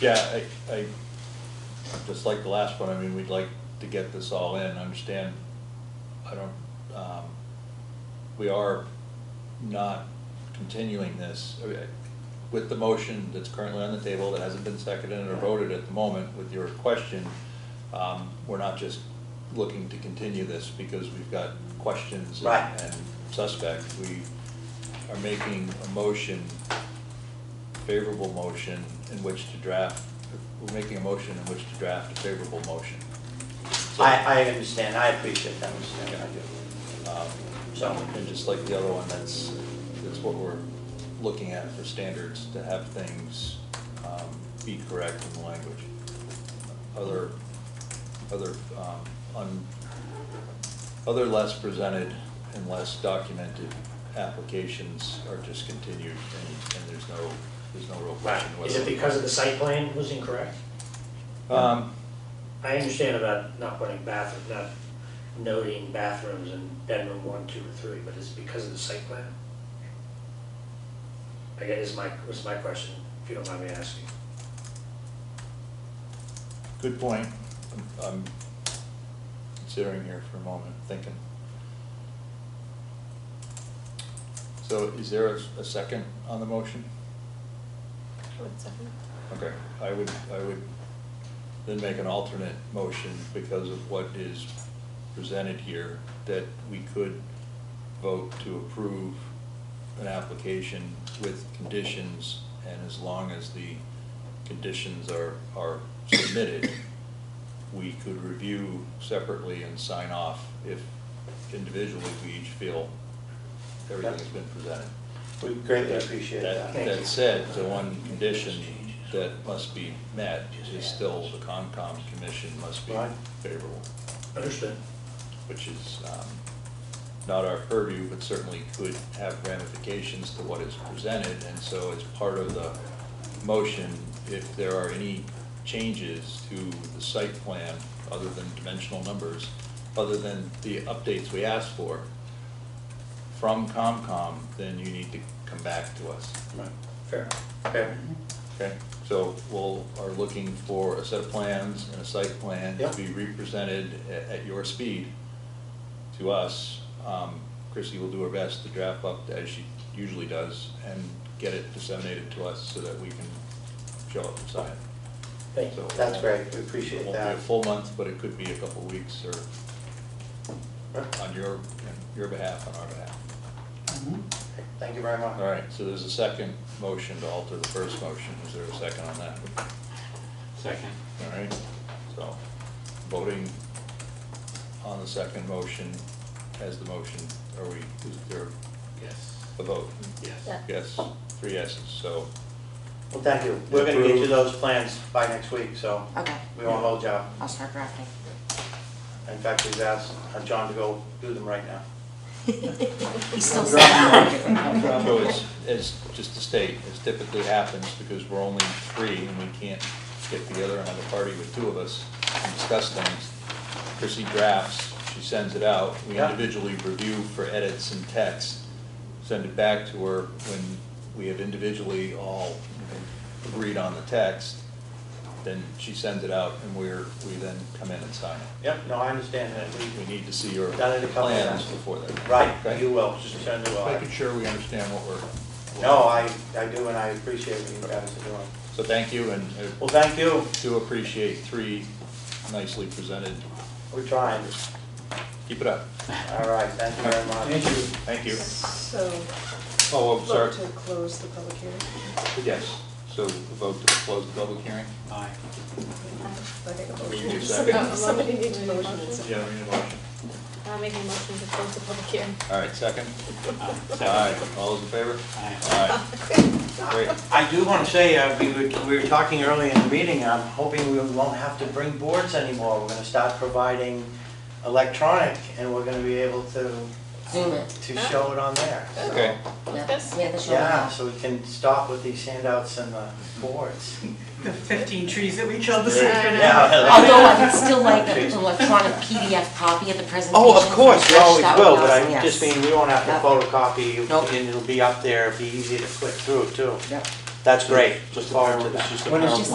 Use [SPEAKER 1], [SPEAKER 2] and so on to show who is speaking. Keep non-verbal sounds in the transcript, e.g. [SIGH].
[SPEAKER 1] Yeah, I, I, just like the last one, I mean, we'd like to get this all in, I understand, I don't, um, we are not continuing this. I mean, I- With the motion that's currently on the table, that hasn't been seconded or voted at the moment, with your question, um, we're not just looking to continue this because we've got questions and-
[SPEAKER 2] Right.
[SPEAKER 1] and suspects. We are making a motion favorable motion in which to draft, we're making a motion in which to draft a favorable motion.
[SPEAKER 2] I, I understand, I appreciate that, Mr. Chairman, I do.
[SPEAKER 1] Um, So, and just like the other one, that's, that's what we're looking at for standards, to have things um, be correct in the language. Other, other, um, un- other less presented and less documented applications are just continued, and and there's no, there's no real question whether.
[SPEAKER 3] Is it because of the site plan was incorrect?
[SPEAKER 1] Um,
[SPEAKER 3] I understand about not putting bathroom, not noting bathrooms in bedroom one, two, or three, but is it because of the site plan? I guess is my, was my question, if you don't mind me asking.
[SPEAKER 1] Good point. I'm- I'm considering here for a moment, thinking. So is there a a second on the motion?
[SPEAKER 4] One second.
[SPEAKER 1] Okay, I would, I would then make an alternate motion because of what is presented here, that we could vote to approve an application with conditions, and as long as the conditions are, are submitted, we could review separately and sign off if individually we each feel everything has been presented.
[SPEAKER 2] We greatly appreciate
[SPEAKER 1] That,
[SPEAKER 2] that.
[SPEAKER 1] that said, the one condition that must be met is still the Concom commission must be
[SPEAKER 2] Right.
[SPEAKER 1] favorable,
[SPEAKER 3] Understood.
[SPEAKER 1] which is um, not our purview, but certainly could have ramifications to what is presented. And so as part of the motion, if there are any changes to the site plan, other than dimensional numbers, other than the updates we asked for from Concom, then you need to come back to us.
[SPEAKER 2] Right.
[SPEAKER 3] Fair, fair.
[SPEAKER 1] Okay, so we'll, are looking for a set of plans and a site plan to
[SPEAKER 2] Yep.
[SPEAKER 1] be represented at, at your speed to us. Um, Chrissy will do her best to draft up as she usually does and get it disseminated to us so that we can show up and sign.
[SPEAKER 3] Thank
[SPEAKER 1] So
[SPEAKER 3] you.
[SPEAKER 1] it
[SPEAKER 2] That's
[SPEAKER 1] won't-
[SPEAKER 2] great, we appreciate
[SPEAKER 1] It won't be a
[SPEAKER 2] that.
[SPEAKER 1] full month, but it could be a couple of weeks or
[SPEAKER 2] Right.
[SPEAKER 1] on your, on your behalf, on our behalf.
[SPEAKER 2] Thank you very much.
[SPEAKER 1] All right, so there's a second motion to alter the first motion. Is there a second on that?
[SPEAKER 5] Second.
[SPEAKER 1] All right, so voting on the second motion as the motion, are we, is there
[SPEAKER 5] Yes.
[SPEAKER 1] a vote?
[SPEAKER 5] Yes.
[SPEAKER 4] Yeah.
[SPEAKER 1] Yes, three yeses, so,
[SPEAKER 2] Well, thank you, we're gonna get you
[SPEAKER 1] Approved.
[SPEAKER 2] those plans by next week, so
[SPEAKER 4] Okay,
[SPEAKER 2] we won't hold you up.
[SPEAKER 4] I'll start drafting.
[SPEAKER 2] In fact, we've asked uh, John to go do them right now.
[SPEAKER 4] He's still sad.
[SPEAKER 1] so it's, it's just to state, as typically happens, because we're only three and we can't get together and have a party with two of us and discuss things. Chrissy drafts, she sends it out, we
[SPEAKER 2] Yeah.
[SPEAKER 1] individually review for edits and text, send it back to her when we have individually all agreed on the text, then she sends it out and we're, we then come in and sign it.
[SPEAKER 2] Yep, no, I understand
[SPEAKER 1] And
[SPEAKER 2] that,
[SPEAKER 1] we, we need to see your
[SPEAKER 2] Done it a couple
[SPEAKER 1] plans
[SPEAKER 2] times.
[SPEAKER 1] before that.
[SPEAKER 2] we, right,
[SPEAKER 1] Okay?
[SPEAKER 2] you will, just turn to I.
[SPEAKER 1] Making sure we understand what we're.
[SPEAKER 2] No, I, I do, and I appreciate what you guys are doing.
[SPEAKER 1] So thank you and I
[SPEAKER 2] Well, thank you,
[SPEAKER 1] do appreciate three nicely presented.
[SPEAKER 2] we're trying,
[SPEAKER 1] Keep it up.
[SPEAKER 2] all right, thank you very much.
[SPEAKER 6] Thank you.
[SPEAKER 1] Thank you.
[SPEAKER 4] So,
[SPEAKER 1] Oh, I'm sorry.
[SPEAKER 4] vote to close the public hearing.
[SPEAKER 1] Yes, so vote to close the public hearing?
[SPEAKER 5] Aye.
[SPEAKER 4] I think a
[SPEAKER 1] Oh, you do
[SPEAKER 4] motion.
[SPEAKER 1] second.
[SPEAKER 4] Somebody- Somebody needs a motion.
[SPEAKER 1] Yeah, we need a motion.
[SPEAKER 4] I'm making a motion to close the public hearing.
[SPEAKER 1] All right, second?
[SPEAKER 5] Aye.
[SPEAKER 1] All right, all those in favor? Aye. Great.
[SPEAKER 2] I do want to say, uh, we were, we were talking earlier in the meeting, I'm hoping we won't have to bring boards anymore. We're gonna start providing electronic, and we're gonna be able to,
[SPEAKER 6] Zoom it.
[SPEAKER 2] to show it on there. so-
[SPEAKER 1] Okay.
[SPEAKER 4] Yes.
[SPEAKER 6] Yeah, the show.
[SPEAKER 2] Yeah, so we can stop with these handouts and the boards.
[SPEAKER 7] [LAUGHS] The 15 trees that we killed this
[SPEAKER 1] Right.
[SPEAKER 7] afternoon.
[SPEAKER 2] Yeah.
[SPEAKER 6] Although
[SPEAKER 2] [LAUGHS]
[SPEAKER 6] I would still like an electronic PDF copy of the presentation.
[SPEAKER 2] Oh, of course, we
[SPEAKER 6] That
[SPEAKER 2] always
[SPEAKER 6] would be
[SPEAKER 2] will, but
[SPEAKER 6] awesome,
[SPEAKER 2] I
[SPEAKER 6] yes.
[SPEAKER 2] just mean, we won't have to
[SPEAKER 6] Yep.
[SPEAKER 2] photocopy,
[SPEAKER 6] Nope.
[SPEAKER 2] and it'll be up there, it'll be easy to click through too.
[SPEAKER 6] Yep.
[SPEAKER 2] That's great, look forward to
[SPEAKER 1] It's
[SPEAKER 2] that.
[SPEAKER 1] just a
[SPEAKER 6] When is
[SPEAKER 1] PowerPoint.
[SPEAKER 6] she